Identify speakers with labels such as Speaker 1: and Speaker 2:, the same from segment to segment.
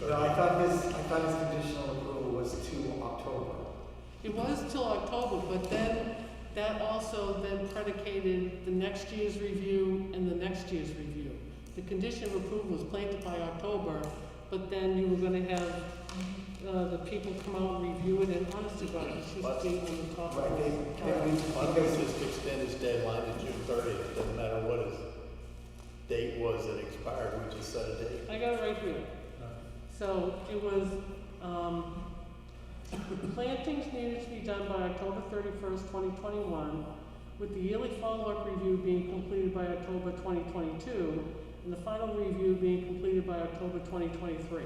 Speaker 1: No, I thought this, I thought this conditional approval was to October.
Speaker 2: It was till October, but then, that also then predicated the next year's review and the next year's review. The condition of approval was planned by October, but then you were gonna have, uh, the people come out and review it, and honestly, God, it should
Speaker 3: But-
Speaker 2: be on the top.
Speaker 1: Right, they, they, we-
Speaker 3: Why don't
Speaker 1: because,
Speaker 3: we just extend his deadline to June thirtieth, doesn't matter what his date was that expired, we just set a date.
Speaker 2: I got it right here. So it was, um, plantings needed to be done by October thirty-first, twenty twenty-one, with the yearly follow-up review being completed by October twenty twenty-two, and the final review being completed by October twenty twenty-three.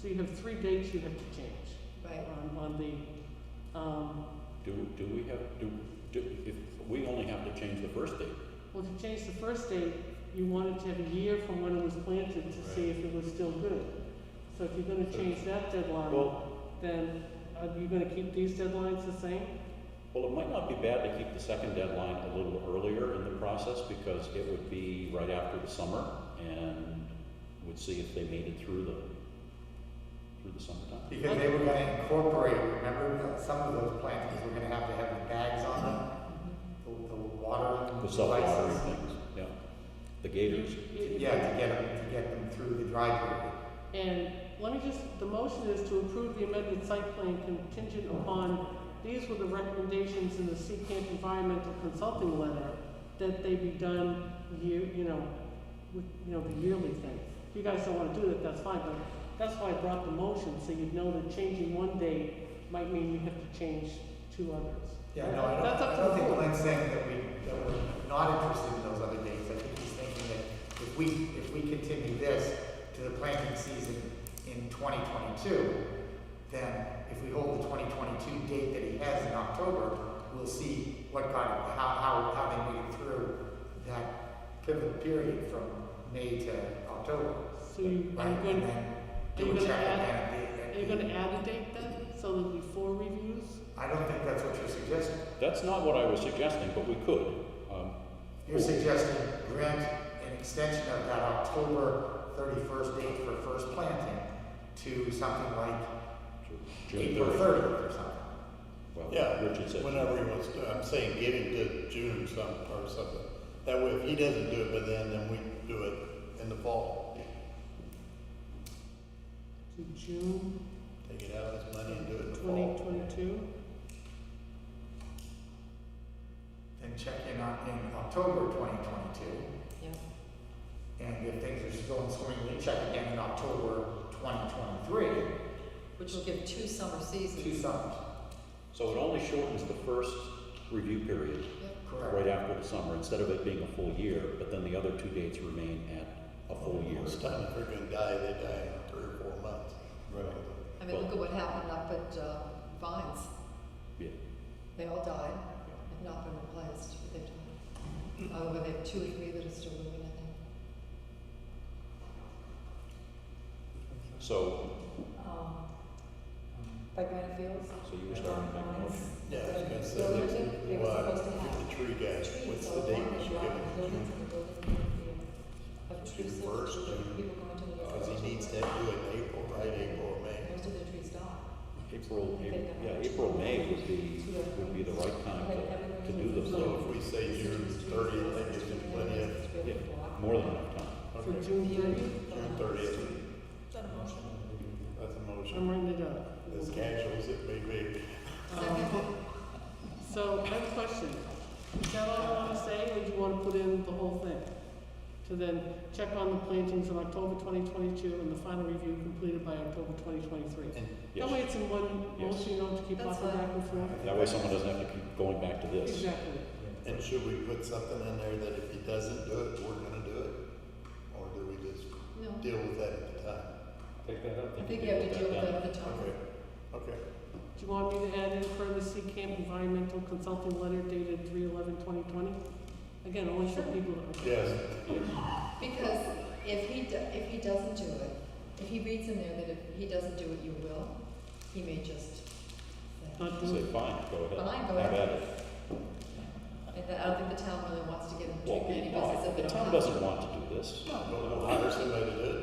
Speaker 2: So you have three dates you have to change
Speaker 4: Right.
Speaker 2: on, on the, um,
Speaker 5: Do, do we have, do, do, if, we only have to change the first date.
Speaker 2: well, to change the first date, you wanted to have a year from when it was planted to see if it was still good. So if you're gonna change that deadline.
Speaker 5: Well,
Speaker 2: then are you gonna keep these deadlines the same?
Speaker 5: well, it might not be bad to keep the second deadline a little earlier in the process because it would be right after the summer and would see if they made it through the, through the summertime.
Speaker 1: because they were gonna incorporate, remember, that some of those plantings were gonna have to have the bags on them, the, the water
Speaker 5: The
Speaker 1: devices.
Speaker 5: self-watering things, yeah. The gators.
Speaker 1: Yeah, to get them, to get them through the dry period.
Speaker 2: And let me just, the motion is to approve the amended site plan contingent upon, these were the recommendations in the Sea Camp Environmental Consulting Letter, that they be done year, you know, with, you know, the yearly thing. If you guys don't wanna do that, that's fine, but that's why I brought the motion, so you'd know that changing one date might mean you have to change two others.
Speaker 1: Yeah, no, I don't,
Speaker 2: That's up
Speaker 1: I
Speaker 2: to
Speaker 1: don't
Speaker 2: the
Speaker 1: think
Speaker 2: board.
Speaker 1: Glenn's saying that we, that we're not interested in those other dates. I think he's thinking that if we, if we continue this to the planting season in twenty twenty-two, then if we hold the twenty twenty-two date that he has in October, we'll see what kind of, how, how, how they made it through that pivot period from May to October.
Speaker 2: So you,
Speaker 1: Right,
Speaker 2: are
Speaker 1: and
Speaker 2: gonna,
Speaker 1: then
Speaker 2: are you
Speaker 1: do a
Speaker 2: gonna
Speaker 1: check
Speaker 2: add-
Speaker 1: and then.
Speaker 2: are you gonna add a date then, so there'll be four reviews?
Speaker 1: I don't think that's what you're suggesting.
Speaker 5: That's not what I was suggesting, but we could. Um,
Speaker 1: You're suggesting grant an extension of that October thirty-first date for first planting to something like
Speaker 5: June
Speaker 1: April
Speaker 5: thirtieth.
Speaker 1: thirtieth or something.
Speaker 5: Well,
Speaker 3: Yeah,
Speaker 5: Richard said.
Speaker 3: whenever he wants to, I'm saying get him to June some, or something. That way, if he doesn't do it by then, then we do it in the fall.
Speaker 2: To June
Speaker 3: Take it out of his money and do it in the
Speaker 2: twenty
Speaker 3: fall.
Speaker 2: twenty-two?
Speaker 1: Then check in on, in October twenty twenty-two,
Speaker 4: Yeah.
Speaker 1: and if things are still going swimmingly, check again in October twenty twenty-three,
Speaker 4: Which will give two summer
Speaker 1: two
Speaker 4: seasons.
Speaker 1: summers,
Speaker 5: So it only shortens the first review period right
Speaker 1: correct?
Speaker 5: after the summer, instead of it being a full year, but then the other two dates remain at a full year.
Speaker 3: It's time if they're gonna die, they die in three or four months. Right.
Speaker 4: I mean, look at what happened up at uh, Vines.
Speaker 5: Yeah.
Speaker 4: They all died, have not been replaced, but they've died. Oh, but they have two or three that are still living, I think.
Speaker 5: So,
Speaker 4: Um, By Granite Fields?
Speaker 5: so you were starting to make a motion.
Speaker 3: Yeah, I was gonna say,
Speaker 4: Building,
Speaker 3: that's
Speaker 4: they were
Speaker 3: why,
Speaker 4: supposed to have
Speaker 3: with the tree guy,
Speaker 4: trees,
Speaker 3: what's
Speaker 4: so
Speaker 3: the
Speaker 4: as
Speaker 3: date
Speaker 4: long
Speaker 3: we
Speaker 4: as
Speaker 3: should
Speaker 4: you're
Speaker 3: give
Speaker 4: out in the
Speaker 3: him?
Speaker 4: buildings and the buildings are in the, of
Speaker 3: June
Speaker 4: trees, so
Speaker 3: first,
Speaker 4: that
Speaker 3: June.
Speaker 4: people come into the.
Speaker 3: Because he needs to do it in April, right, April or May.
Speaker 4: Most of the trees die.
Speaker 5: April, April, yeah, April, May would be, would be the right time to, to do those,
Speaker 3: So
Speaker 5: so
Speaker 3: if we say June thirtieth, that gives him plenty of,
Speaker 5: yeah, more than enough time.
Speaker 2: For
Speaker 3: okay,
Speaker 2: June thirty?
Speaker 3: June thirtieth,
Speaker 1: Mm-hmm.
Speaker 3: that's a
Speaker 2: I'm
Speaker 3: motion.
Speaker 2: writing it up.
Speaker 3: As casual as it may be.
Speaker 2: Um, So, I have a question. Is that all you wanna say, or do you wanna put in the whole thing? To then check on the plantings in October twenty twenty-two and the final review completed by October twenty twenty-three?
Speaker 3: And
Speaker 2: That way it's
Speaker 5: Yes,
Speaker 2: in one
Speaker 5: Yes.
Speaker 2: motion, you don't have to keep
Speaker 4: That's
Speaker 2: hopping
Speaker 4: fine.
Speaker 2: back and forth.
Speaker 5: that way someone doesn't have to keep going back to this.
Speaker 2: Exactly.
Speaker 3: And should we put something in there that if he doesn't do it, we're gonna do it? Or do we just
Speaker 4: No,
Speaker 3: deal with that at the time?
Speaker 5: Take that up.
Speaker 4: I think you have to deal with that at the time.
Speaker 3: Okay, okay.
Speaker 2: Do you want me to add in further C Camp Environmental Consulting Letter dated 3/11/2020? Again, only for people that are.
Speaker 3: Yes,
Speaker 4: Because if he, do- if he doesn't do it, if he reads in there that if he doesn't do it, you will, he may just say,
Speaker 2: Not doing
Speaker 5: Say, fine, go ahead.
Speaker 4: fine, go
Speaker 5: Have at
Speaker 4: ahead.
Speaker 5: it.
Speaker 4: And that- I don't think the town really wants to get him
Speaker 5: Well,
Speaker 4: too many
Speaker 5: no,
Speaker 4: buses
Speaker 5: I-
Speaker 4: at
Speaker 5: the
Speaker 4: the
Speaker 5: town
Speaker 4: time.
Speaker 5: doesn't want to do this.
Speaker 3: we'll hire somebody to do it.